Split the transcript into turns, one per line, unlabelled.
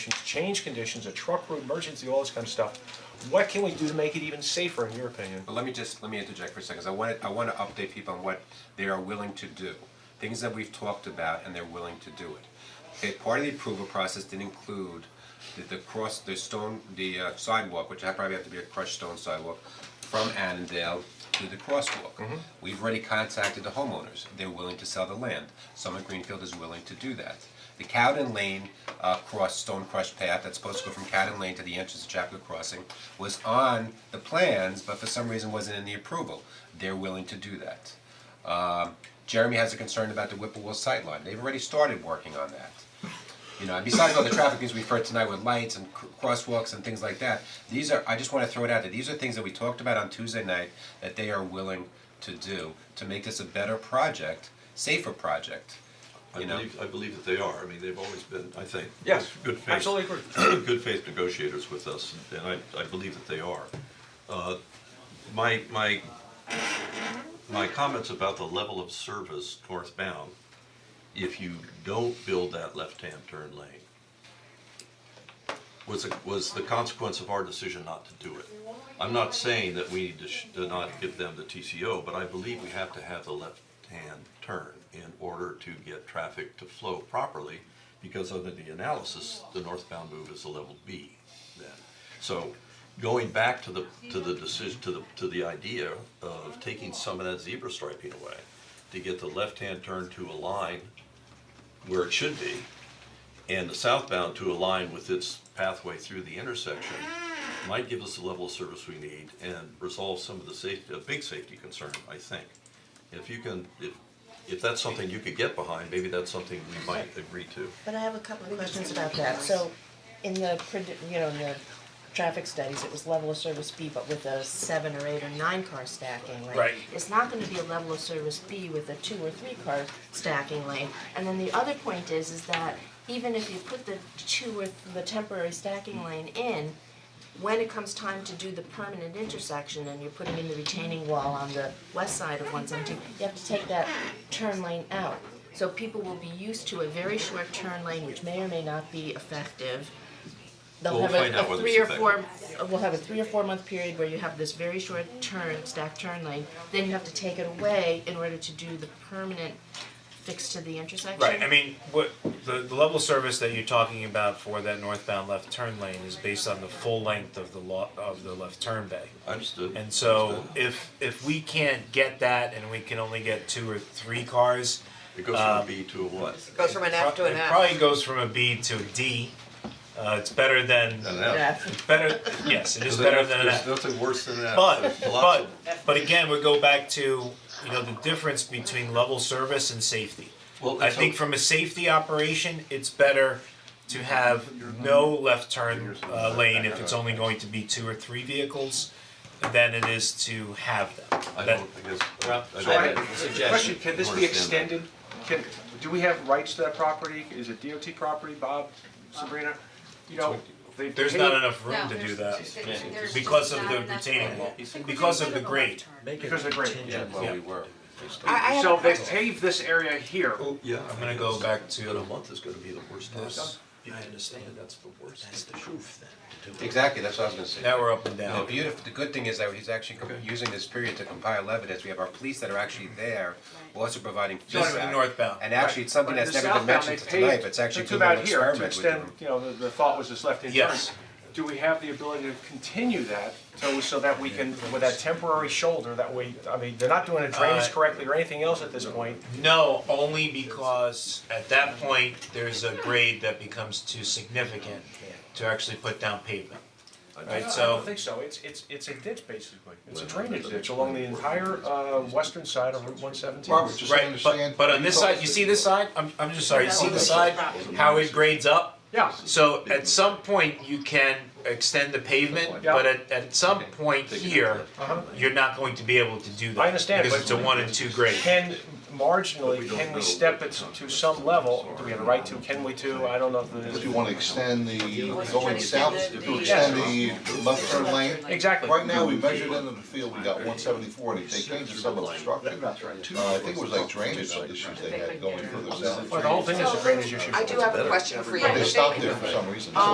conditions, change conditions, a truck route emergency, all this kind of stuff. What can we do to make it even safer, in your opinion?
But let me just, let me interject for a second, 'cause I wanna, I wanna update people on what they are willing to do. Things that we've talked about and they're willing to do it. Okay, part of the approval process did include the, the cross, the stone, the uh, sidewalk, which I probably have to be a crushed stone sidewalk, from Annandale to the crosswalk. We've already contacted the homeowners, they're willing to sell the land, Summit Greenfield is willing to do that. The Cowden Lane uh cross stone crush path that's supposed to go from Cowden Lane to the entrance of Chapel Crossing was on the plans, but for some reason wasn't in the approval. They're willing to do that. Um, Jeremy has a concern about the Whipplewell sightline. They've already started working on that. You know, and besides all the traffic things we've heard tonight with lights and cr- crosswalks and things like that, these are, I just wanna throw it out there, these are things that we talked about on Tuesday night that they are willing to do to make this a better project, safer project,
I
you know?
believe, I believe that they are, I mean, they've always been, I think,
Yes,
good faith.
absolutely agree.
Good faith negotiators with us, and I, I believe that they are. Uh, My, my, my comments about the level of service northbound, if you don't build that left-hand turn lane, was, a- was the consequence of our decision not to do it. I'm not saying that we need to sh- to not give them the TCO, but I believe we have to have the left-hand turn in order to get traffic to flow properly, because under the analysis, the northbound move is a level B then. So going back to the, to the decision, to the, to the idea of taking some of that zebra striping away, to get the left-hand turn to align where it should be, and the southbound to align with its pathway through the intersection might give us the level of service we need and resolve some of the safety, a big safety concern, I think. If you can, if, if that's something you could get behind, maybe that's something we might agree to.
But I have a couple of questions about that, so in the, predi- you know, in the traffic studies, it was level of service B, but with a seven or eight or nine car stacking lane.
Right.
It's not gonna be a level of service B with a two or three car stacking lane. And then the other point is, is that even if you put the two or, th- the temporary stacking lane in, when it comes time to do the permanent intersection and you're putting in the retaining wall on the west side of one seventeen, you have to take that turn lane out. So people will be used to a very short turn lane, which may or may not be effective. They'll
We'll
have a-
find out
a
whether
three or
it's
four, we'll have a three or four month period where you have this very short turn, stacked turn lane. Then you have to take it away in order to do the permanent fix to the intersection.
Right, I mean, what, the, the level of service that you're talking about for that northbound left turn lane is based on the full length of the law, of the left turn bay.
Understood.
And so
Understood.
if, if we can't get that and we can only get two or three cars,
It goes
uh,
from a B to a what?
Goes from an F to an
It
F.
probably goes from a B to a D. Uh, it's better than,
An
Yeah.
F.
it's better, yes, it
There's
is better
enough-
than an F.
There's nothing worse than an F.
But,
There's lots
but,
of-
but again, we go back to, you know, the difference between level service and safety.
Well,
I
so-
think from a safety operation, it's better to have no left turn uh, lane if it's only going to be two or three vehicles than it is to have them.
I
That-
don't, I guess.
Well,
I
so I,
don't-
question, can this be
Understand that.
extended? Can, do we have rights to that property? Is it DOT property, Bob, Sabrina? You know, they
There's
paid-
not enough room
No,
to do that
there's- there's- there's
because of
not
the
enough
retaining
room.
wall,
I think we
because
should
of the
put a
grade.
left turn.
Because they're great.
Yeah, well, we were.
I, I have
So
a
they
question.
paved this area here.
Oh, yeah.
I'm gonna go back to-
But a month is gonna be the worst time.
Yes.
I understand, that's the worst.
That's the truth then, to do it.
Exactly, that's what I was gonna say.
Now we're up and
The
down.
beautiful, the good thing is that he's actually com- using this period to compile evidence, we have our police that are actually there, we're also providing
Just
feedback.
the northbound,
And actually, it's something
But in
that's
the
never been
southbound,
mentioned
they
tonight,
paved-
but it's actually
they
doing
took
an
out here to
experiment with
extend,
them.
you know, the, the thought was this left-hand turn.
Yes.
Do we have the ability to continue that, so, so that we can, with that temporary shoulder, that we, I mean, they're not doing a drainage
Uh,
correctly or anything else at this point.
No, only because at that point, there's a grade that becomes too significant to actually put down pavement. Right,
No, I
so-
don't think so, it's, it's, it's a ditch basically, it's a drainage ditch along the entire, uh, western side of Route one seventeen.
Robert, just
Right,
understand.
but but on this side, you see this side, I'm I'm just sorry, you see the side, how it grades up?
Yeah,
So at some point, you can extend the pavement, but at at some point here, you're not going to be able to do that.
Uh-huh. I understand,
Because
but-
it's a one and two grade.
can marginally, can we step it to some level, do we have a right to, can we to, I don't know if
If you
the.
wanna extend the, going south, if you
Yes.
extend the left turn lane.
Exactly.
Right now, we measured into the field, we got one seventy-four, and they changed some of the structure. Uh, I think it was like drainage issues they had going further south.
Well, the whole thing is a drainage issue.
I do have a question for you.
They stopped there for some reason.